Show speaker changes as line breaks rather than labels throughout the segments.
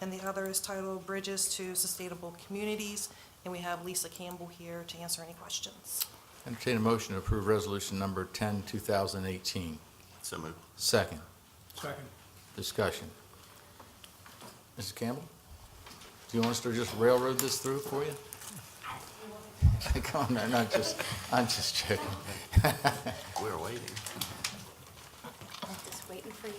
and the other is titled Bridges to Sustainable Communities. And we have Lisa Campbell here to answer any questions.
Entertain a motion to approve resolution number 10, 2018.
So moved.
Second,
Second.
discussion. Mrs. Campbell, do you want us to just railroad this through for you? Come on, I'm not just, I'm just joking.
We're waiting.
Just waiting for you.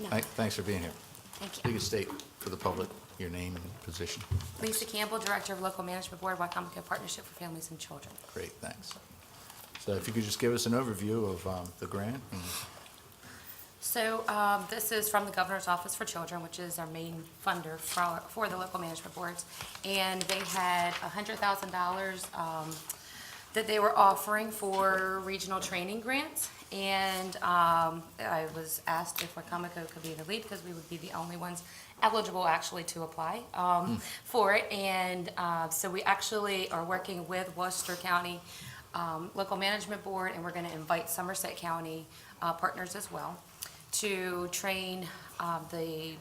No,
Thank- Thanks for being here.
thank
You
you.
can state for the public your name and position.
Lisa Campbell, Director of Local Management Board, Wycomico Partnership for Families and Children.
Great, thanks. So if you could just give us an overview of um, the grant and
So um, this is from the Governor's Office for Children, which is our main funder for for the local management boards. And they had $100,000 um, that they were offering for regional training grants. And um, I was asked if Wacomico could be the lead because we would be the only ones eligible actually to apply um, for it. And uh, so we actually are working with Worcester County um, Local Management Board, and we're going to invite Somerset County uh, partners as well to train uh, the,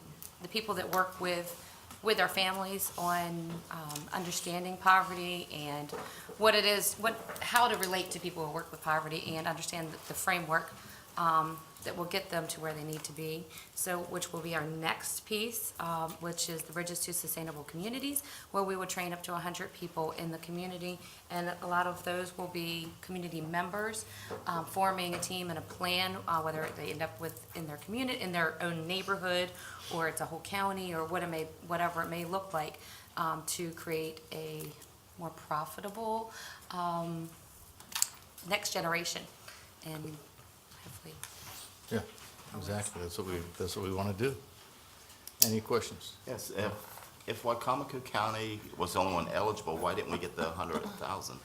the people that work with with our families on um, understanding poverty and what it is, what, how to relate to people who work with poverty and understand the- the framework um, that will get them to where they need to be. So, which will be our next piece, um, which is the Bridges to Sustainable Communities, where we will train up to 100 people in the community. And a lot of those will be community members, um, forming a team and a plan, uh, whether they end up with, in their community, in their own neighborhood, or it's a whole county, or what it may, whatever it may look like, um, to create a more profitable, um, next generation. And hopefully
Yeah, exactly. That's what we, that's what we want to do. Any questions?
Yes, if, if Wycomico County was the only one eligible, why didn't we get the hundred thousand?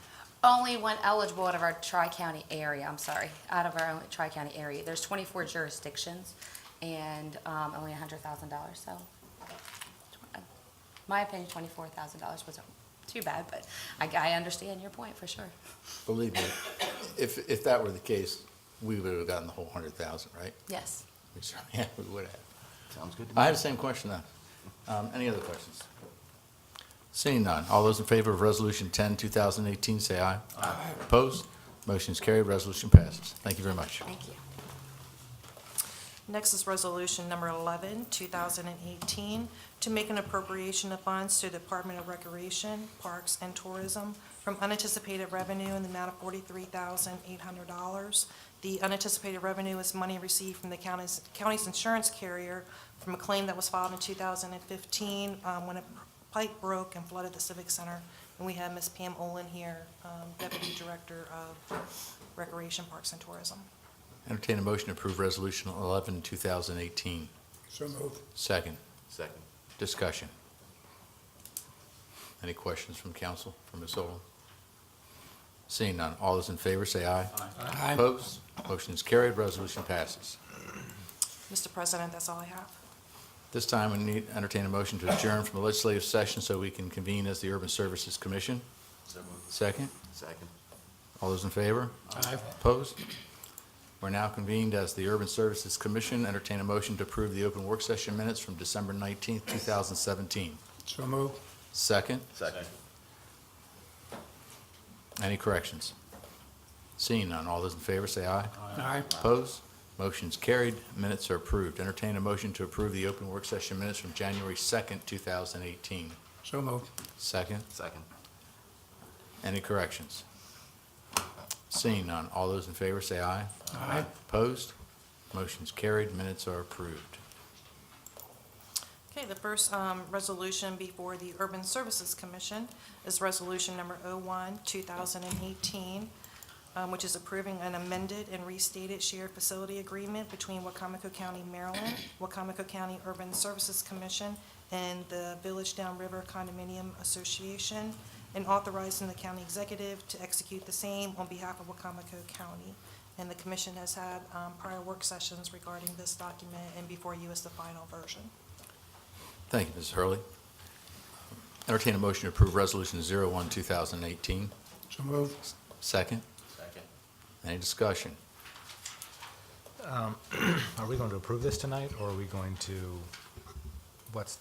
Only one eligible out of our tri-county area, I'm sorry, out of our only tri-county area. There's 24 jurisdictions and um, only $100,000, so. uh, My opinion, $24,000 wasn't too bad, but I, I understand your point for sure.
Believe me, if, if that were the case, we would have gotten the whole hundred thousand, right?
Yes.
We certainly- Yeah, we would have.
Sounds good to me.
I have the same question now. Um, any other questions? Seeing none, all those in favor of Resolution 10, 2018, say aye. Aye. Opposed? Motion is carried, resolution passes. Thank you very much.
Thank you.
Next is Resolution Number 11, 2018, to make an appropriation of funds to Department of Recreation, Parks, and Tourism from unanticipated revenue in the amount of $43,800. The unanticipated revenue is money received from the county's county's insurance carrier from a claim that was filed in 2015 um, when a pipe broke and flooded the Civic Center. And we have Ms. Pam Olin here, um, Deputy Director of Recreation, Parks, and Tourism.
Entertain a motion to approve Resolution 11, 2018.
So moved.
Second,
Second.
discussion. Any questions from council, from Ms. Olam? Seeing none, all those in favor, say aye. Aye. Opposed? Motion is carried, resolution passes.
Mr. President, that's all I have.
This time, we need entertain a motion to adjourn from the legislative session so we can convene as the Urban Services Commission. Second,
Second.
all those in favor?
Aye.
Opposed? We're now convened as the Urban Services Commission. Entertain a motion to approve the open work session minutes from December 19th, 2017.
So moved.
Second,
Second.
any corrections? Seeing none, all those in favor say aye.
Aye.
Opposed? Motion's carried, minutes are approved. Entertain a motion to approve the open work session minutes from January 2nd, 2018.
So moved.
Second,
Second.
Any corrections? Seeing none, all those in favor say aye.
Aye.
Opposed? Motion's carried, minutes are approved.
Okay, the first um, resolution before the Urban Services Commission is Resolution Number 01, 2018, um, which is approving an amended and restated shared facility agreement between Wacomico County, Maryland, Wacomico County Urban Services Commission, and the Village Downriver Condominium Association, and authorizing the county executive to execute the same on behalf of Wacomico County. And the commission has had um, prior work sessions regarding this document, and before you is the final version.
Thank you, Mrs. Hurley. Entertain a motion to approve Resolution 01, 2018.
So moved.
Second,
Second.
any discussion?
Are we going to approve this tonight, or are we going to, what's